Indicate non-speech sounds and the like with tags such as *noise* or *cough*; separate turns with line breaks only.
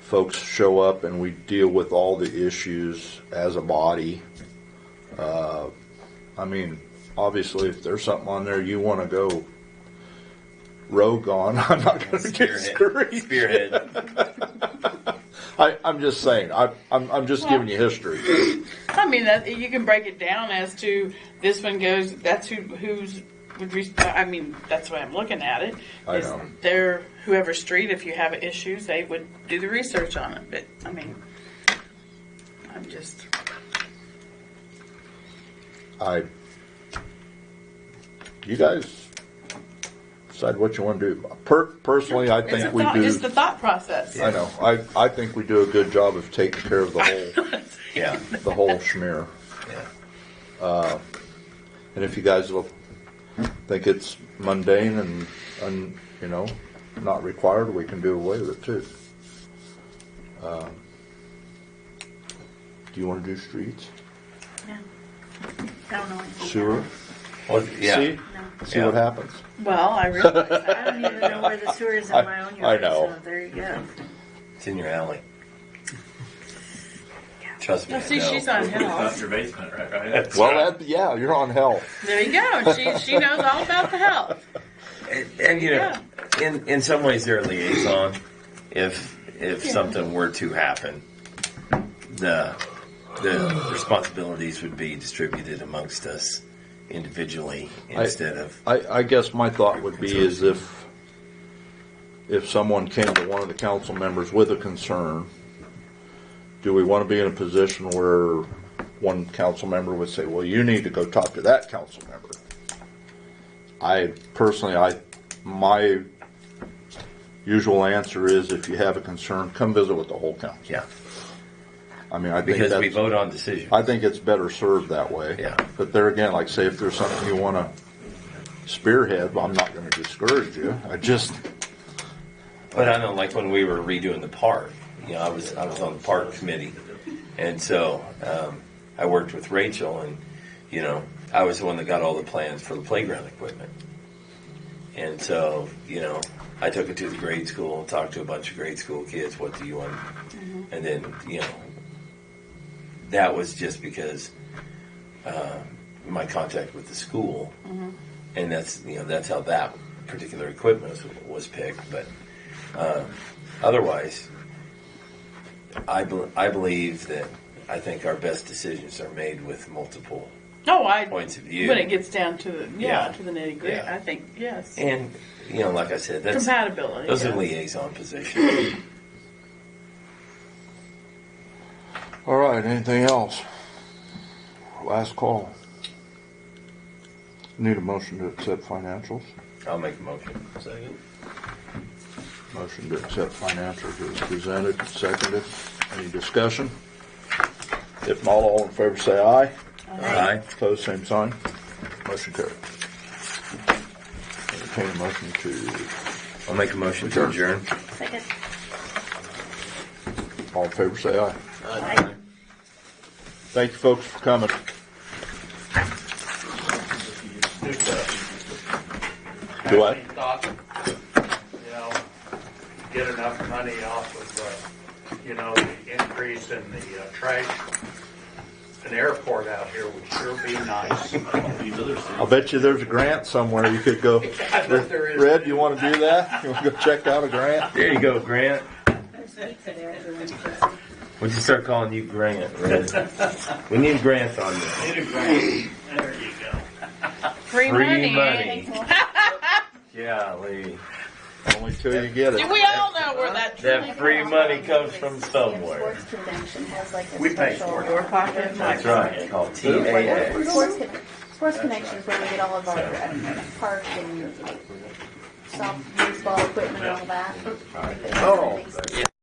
folks show up and we deal with all the issues as a body. Uh, I mean, obviously, if there's something on there you want to go rogue on, *laughs* I'm not going to get
Spearhead.
scurried.
Spearhead.
I, I'm just saying. I, I'm, I'm just giving you history.
I mean, that, you can break it down as to this one goes. That's who who's. would res- I mean, that's the way I'm looking at it.
I
is
know.
Their whoever street, if you have issues, they would do the research on it. But I mean, I'm just.
I. You guys decide what you want to do. Per, personally, I
It's a
think we
thought,
do.
just the thought process.
I know. I, I think we do a good job of taking care of the whole
Yeah.
the whole schmear.
yeah.
And if you guys will think it's mundane and, and you know not required, we can do away with it too. Um, do you want to do streets,
Yeah. I don't know.
*laughs*
anything
sewer?
Well, yeah.
See,
No.
see
Yeah.
what happens.
about- *laughs* Well, I
*laughs*
realize
I
that.
don't even know where the sewer is
I-
on my own yard.
I know.
So there you go.
It's in your alley. Trust me.
Well,
I
see,
know.
she's on hell.
That's your basement, right? right?
Well, that, yeah, you're on hell.
There you go.
*laughs*
She she knows all about the health.
And, and you know, in in some ways, they're a liaison. If if
Yeah.
something were to happen, the the responsibilities would be distributed amongst us individually
I-
instead of
I, I guess my thought would be is if, if someone came to one of the council members with a concern, do we want to be in a position where one council member would say, well, you need to go talk to that council member? I personally, I, my usual answer is if you have a concern, come visit with the whole council.
yeah,
I mean, I think
because we
that's,
vote on decisions.
I think it's better served that way.
Yeah.
But there again, like say if there's something you want to spearhead, well, I'm not going to discourage you. I just,
But I know, like when we were redoing the park, you know, I was I was on the park committee, and so um, I worked with Rachel, and you know, I was the one that got all the plans for the playground equipment, and so you know, I took it to the grade school, talked to a bunch of grade school kids, what do you want, and then you know, that was just because uh, my contact with the school, and that's you know that's how that particular equipment was, was picked, but. Otherwise, I, bel I believe that I think our best decisions are made with multiple.
No, I
Points of view.
when it gets down to the yeah,
Yeah.
to the nitty gritty.
Yeah.
I think yes,
And, you know, like I said, that's
compatibility.
those
yeah.
are liaison positions.
all right, anything else? Last call. Need a motion to accept financials?
I'll make a motion. Second.
Motion to accept financials is presented, seconded. Any discussion? If not, all in favor say aye.
Aye.
Opposed, same sign. Motion carried. Entertain a motion to,
I'll make a motion to adjourn.
Second.
all in favor say aye.
Aye.
Thank you, folks, for coming. Do I?
Thought, you know, get enough money off of, uh, you know, the increase in the uh, trash. An airport out here would sure be nice.
I'll bet you there's a grant somewhere you could go.
I bet there is.
Red, you want to do that? You want to go check out a grant?
There you go, Grant.
There's pizza there. everyone.
We'll just start calling you Grant, Red. We need Grant on this.
Need a grant. There you go.
free, money. *laughs*
Yeah, Lee.
Only till you get
Do
it.
we all know where that
That free money comes from somewhere.
Sports convention has like a
We pay for
special.
it.
your pocket?
That's right. It's called TAA.
Sports, Con- sports connections where we get all of our uh, park and soft baseball equipment and all that.
Oh.